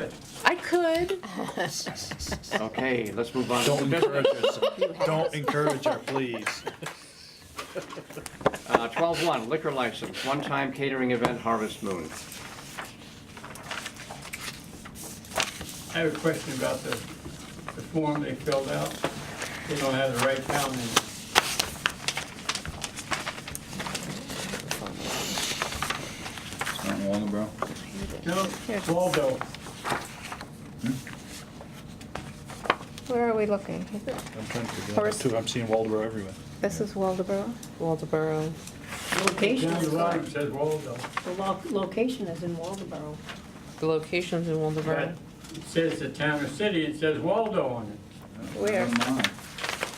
it. I could. Okay, let's move on. Don't encourage us, don't encourage her, please. Uh, twelve one, liquor license, one-time catering event Harvest Moon. I have a question about the, the form they filled out. They don't have the right town in. Not long ago. No, Waldo, Where are we looking? Is it- I'm trying to figure out, Horace- too, I'm seeing Waldeboro everywhere. This is Waldeboro. Waldeboro. Location down is, the bottom the says Waldo. lo- location is in Waldeboro. Oh, The location's in But Waldeboro. it says the town or city, it says Waldo on it. Where? Never mind.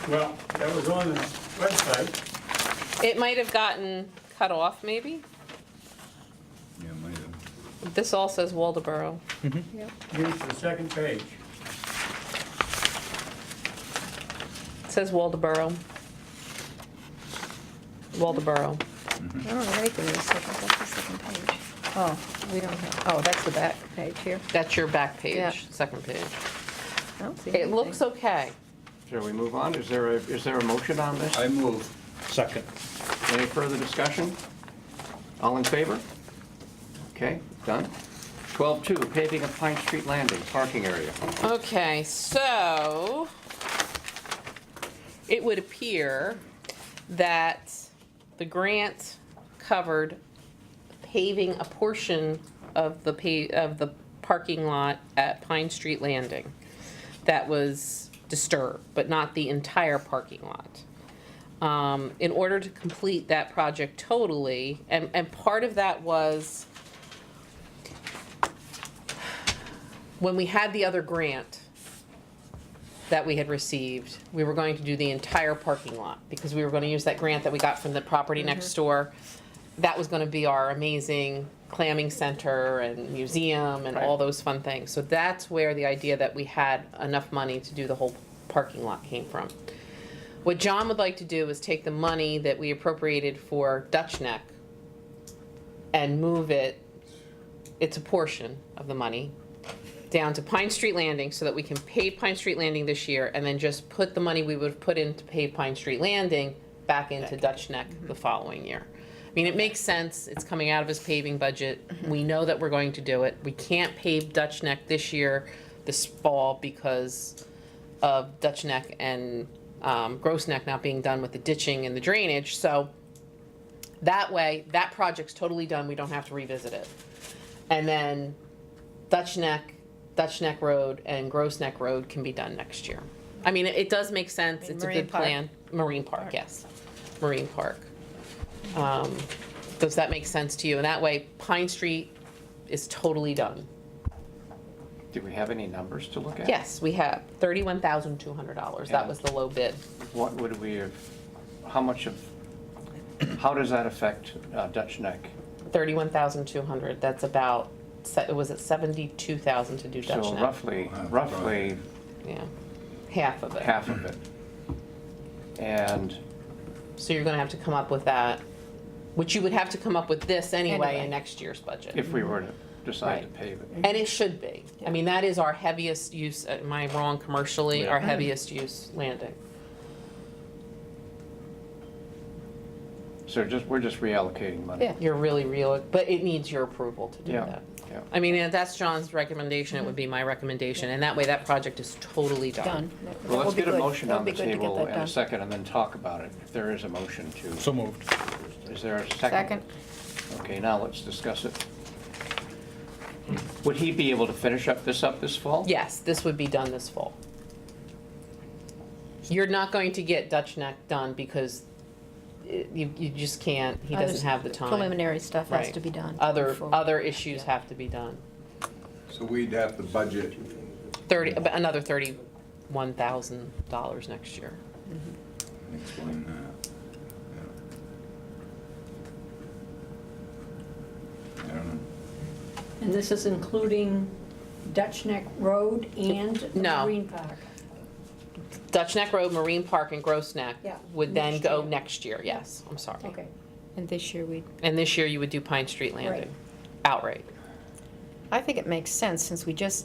Well, that was on the website. It might have gotten cut off, maybe? Yeah, might have. This all says Waldeboro. Here's the second page. It says Waldeboro. Waldeboro. I don't know anything. That's the second page. Oh, we don't have, oh, that's the back page here. That's your back Yeah. page, second page. I don't see It looks anything. okay. Shall we move on? Is there a, is there a motion on this? I move. Second. Any further discussion? All in favor? Okay, done. Twelve two, paving of Pine Street Landing, parking area. Okay, so it would appear that the grant covered paving a portion of the pa, of the parking lot at Pine Street Landing that was disturbed, but not the entire parking lot. Um, in order to complete that project totally, and, and part of that was when we had the other grant that we had received, we were going to do the entire parking lot because we were gonna use that grant that we got from the property next door. That was gonna be our amazing clamming center and museum and all Right. those fun things. So that's where the idea that we had enough money to do the whole parking lot came from. What John would like to do is take the money that we appropriated for Dutch Neck and move it, it's a portion of the money, down to Pine Street Landing so that we can pave Pine Street Landing this year and then just put the money we would have put in to pave Pine Street Landing back into Dutch Neck the following year. I mean, it makes sense. It's coming out of his paving budget. We know that we're going to do it. We can't pave Dutch Neck this year, this fall, because of Dutch Neck and um, Gross Neck not being done with the ditching and the drainage. So that way, that project's totally done. We don't have to revisit it. And then Dutch Neck, Dutch Neck Road, and Gross Neck Road can be done next year. I mean, it, it does make sense. It's a Marine good Park. plan. Marine Park, yes. Marine Park. Um, does that make sense to you? And that way, Pine Street is totally done. Do we have any numbers to look at? Yes, we have thirty-one thousand two hundred dollars. That Yeah. was the low bid. What would we have, how much of, how does that affect uh, Dutch Neck? Thirty-one thousand two hundred, that's about, se- was it seventy-two thousand to do Dutch So Neck? roughly, Wow, roughly Yeah, half of it. half of it. And So you're gonna have to come up with that, which you would have to come up with this anyway Anyway. in next year's budget. if we were to decide to Right. pave it. And it should be. I mean, that is our heaviest use, uh, am I wrong commercially, our heaviest use landing. So just, we're just reallocating money. Yeah. You're really real, but it needs your approval to do Yeah, that. yeah. I mean, if that's John's recommendation, it would be my recommendation, and that way that project is totally Done. done. That- that Well, would let's be get a good. motion That on would be the good to get table that and a done. second, and then talk about it, if there is a motion to. So moved. Is there a second? Second. Okay, now let's discuss it. Would he be able to finish up this up this fall? Yes, this would be done this fall. You're not going to get Dutch Neck done because it- you, you just can't, he Others- doesn't have the time. Preliminary stuff has Right. to be done. Other, before- uh, other issues have to be done. So we'd have to budget Thirty, about another thirty-one thousand dollars next year. Explain that. Yeah. I don't know. And this is including Dutch Neck Road and the No. Marine Park. Dutch Neck Road, Marine Park, and Gross Neck Yeah, would then next go year. next year, yes, I'm sorry. Okay, And this year we, And this year you would do Pine Street Landing outright. I think it makes sense since we just